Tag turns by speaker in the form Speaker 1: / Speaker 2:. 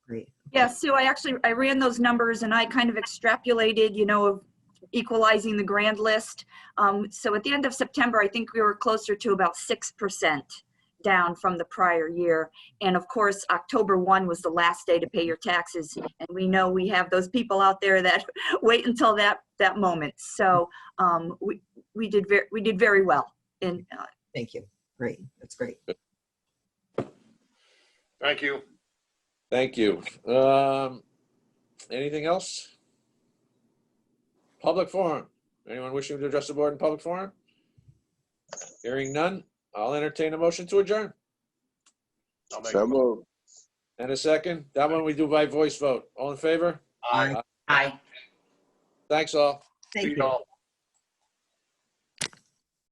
Speaker 1: Yeah, Sue, I actually, I ran those numbers and I kind of extrapolated, you know, of equalizing the grand list. Um, So at the end of September, I think we were closer to about 6% down from the prior year. And of course, October 1 was the last day to pay your taxes. And we know we have those people out there that wait until that, that moment. So um, we, we did, ver- we did very well in, uh,
Speaker 2: Thank you. Great. That's great.
Speaker 3: Thank you.
Speaker 4: Thank you. Um, anything else? Public forum. Anyone wishing to address the board in public forum? Hearing none, I'll entertain a motion to adjourn.
Speaker 3: I'll make a
Speaker 5: So
Speaker 3: mo-
Speaker 5: moved.
Speaker 4: And a second, that one we do by voice vote. All in favor?
Speaker 3: Aye.
Speaker 2: Aye.
Speaker 4: Thanks all.
Speaker 2: Thank
Speaker 3: See
Speaker 2: you.
Speaker 3: y'all.